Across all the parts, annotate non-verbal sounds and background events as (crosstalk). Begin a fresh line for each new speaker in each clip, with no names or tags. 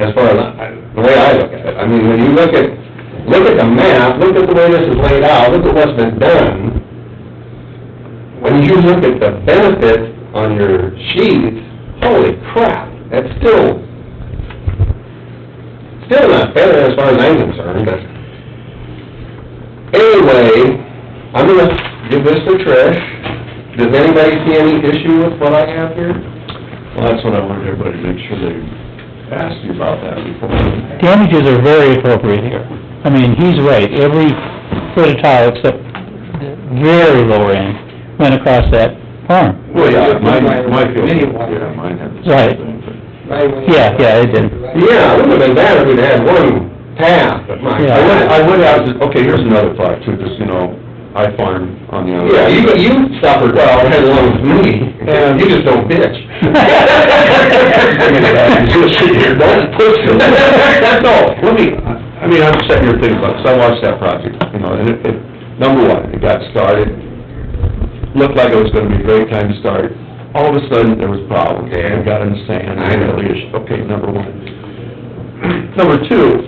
as far as, I- the way I look at it. I mean, when you look at, look at the map, look at the way this is laid out, look at what's been done. When you look at the benefit on your sheet, holy crap, that's still, still not fair as far as I'm concerned, but anyway, I'm gonna give this to Trish. Does anybody see any issue with what I have here?
Well, that's what I wanted everybody to make sure they asked you about that before.
Damages are very appropriate here. I mean, he's right, every foot of tile except the very lower end went across that farm.
Well, yeah, mine, mine,
Anyway.
yeah, mine had the same
Right.
thing, but...
Yeah, yeah, it did.
Yeah, it would've been bad if we'd had one path, but my
Yeah.
I would, I
God.
would have, to- okay, here's another thought too, because, you know, I farm on the other.
Yeah, you, you suffered well as long as me, (laughs) you just don't
(laughs)
bitch. Just sit here, don't push them. That's all.
Let me, I I mean, I'm sitting here thinking about, because I watched that project, you know, and it, it, number one, it got started, looked like it was gonna be a great time to start. All of a sudden, there was problems,
Yeah.
and got in the sand,
I
and
know.
really, is- okay, number one. (clears throat) Number two,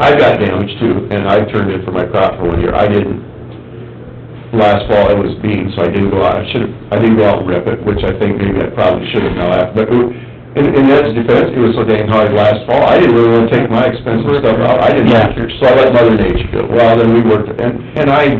I got damaged too, and I turned in for my crop for one year, I didn't, last fall, it was beans, so I didn't go out, I should've, I didn't go out and rip it, which I think maybe I probably should've now, after, but, it- in, in Ed's defense, it was so dang hard last fall, I didn't really wanna take my expensive stuff out, I didn't,
Yeah.
so I let Mother Nature do it, well, then we worked, it, and, and I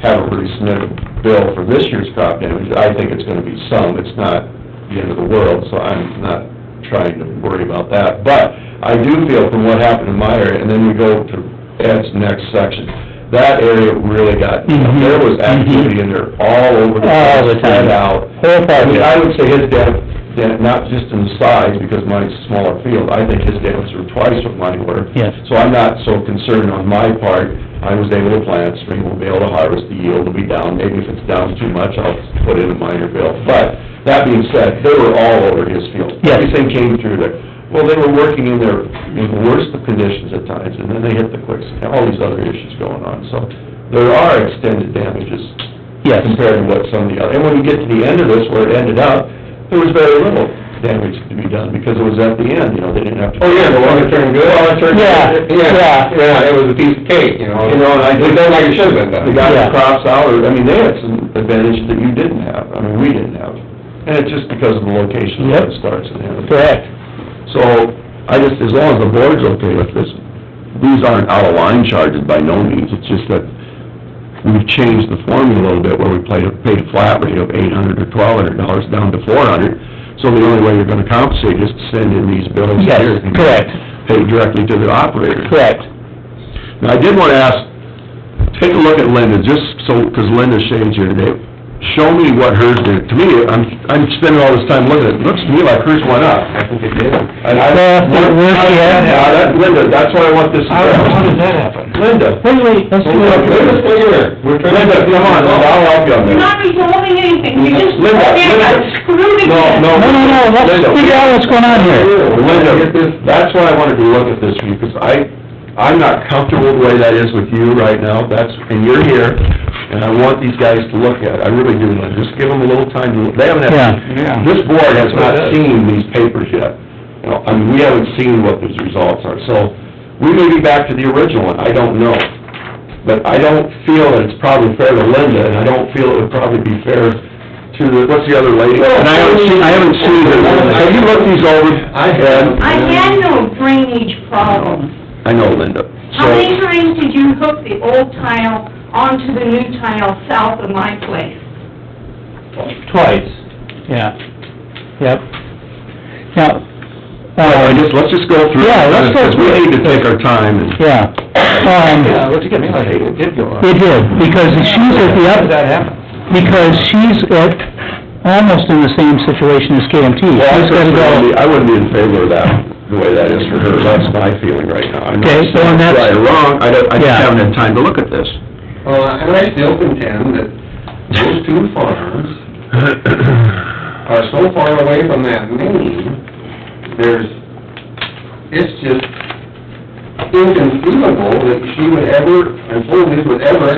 haven't really submitted a bill for this year's crop damage, I think it's gonna be some, it's not the end of the world, so I'm not trying to worry about that, but I do feel from what happened in my area, and then we go to Ed's next section, that area really got,
Mhm.
there was activity in there all over the place.
All the time.
spread out.
Whole
I mean, I
farm,
would say his dam, dam- not just in size, because mine's a smaller field, I think his dams were twice what mine were.
yes.
So I'm not so concerned on my part, I was able to plant, spring will be able to harvest, the yield will be down, maybe if it's down too much, I'll put in a minor bill. But, that being said, they were all over his field.
Yes.
Everything came through there. Well, they were working in their, in the worst of conditions at times, and then they hit the quicks, and all these other issues going on, so there are extended damages
Yes.
compared to what some of the other, and when you get to the end of this, where it ended up, there was very little damage to be done, because it was at the end, you know, they didn't have to...
Oh, yeah, the one that turned good?
Well, it turned good.
Yeah, yeah.
Yeah, it was a piece of cake, you know.
You know, and I
It
did
done
that
like
like
it
a
should've
should
been done.
The guy
Yeah.
that crops out, or, I mean, they had some advantage that you didn't have, I mean, we didn't have. And it's just because of the location where it
Yep.
starts and ends.
Correct.
So, I just, as long as the board's okay with this, these aren't out of line charges by no means, it's just that we've changed the formula a little bit where we played, paid a flat rate of eight hundred or twelve hundred dollars down to four hundred. So the only way you're gonna compensate is to send in these bills
Yes,
here. and
correct.
Pay directly to the operator.
Correct.
Now, I did want to ask, take a look at Linda, just so, because Linda Shane's here today. Show me what hers did. To me, I'm, I'm spending all this time looking at it. Looks to me like hers went up.
I think it did.
And I-
Well, but where's she at?
Yeah, that- Linda, that's why I want this. How did that happen? Linda.
Wait, wait, let's do
Linda, Linda,
it.
stay here. Linda, come on, Linda, I'll help you on
You're
this.
not resolving anything, you're just,
Linda,
yeah,
Linda.
screwed again.
No, no, no, let's
Linda.
figure out what's going on here.
Linda, that's why I wanted to look at this for you, because I, I'm not comfortable the way that is with you right now, that's, and you're here, and I want these guys to look at it, I really do, Linda, just give them a little time to, they haven't
Yeah.
had, this board has not seen these papers yet. You know, I mean, we haven't seen what those results are, so, we may be back to the original one, I don't know. But I don't feel that it's probably fair to Linda, and I don't feel it would probably be fair to the, what's the other lady? And I haven't seen, I haven't seen her, have you looked these over?
I have.
I had no drainage problems.
Um, I know Linda.
How many times did you hook the old tile onto the new tile south of my place?
Twice. Yeah, yep. Now,
I
uh,
just, let's just go through.
Yeah, let's go
Because we need to take our time and...
yeah. Um,
look at me, I hate it, did go up.
it did, because she's at the up,
happen?
because she's at, almost in the same situation as KMT.
Well, I
She's Hmm, gotta
wouldn't
go-
be, I wouldn't be in favor of that, the way that is for her, that's my feeling right now. I'm not
Okay, so
saying
and that's-
Right or wrong, I don't, I just
Yeah.
haven't had time to look at this.
Well, and I still contend that those two farms are so far away from that main, there's, it's just inconceivable that she would ever, and Foley's would ever,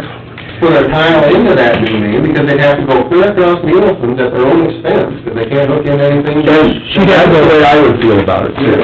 put a tile into that main, because they'd have to go clear across Nielsen's at their own expense, because they can't hook in anything.
That's the way I would feel about it, too.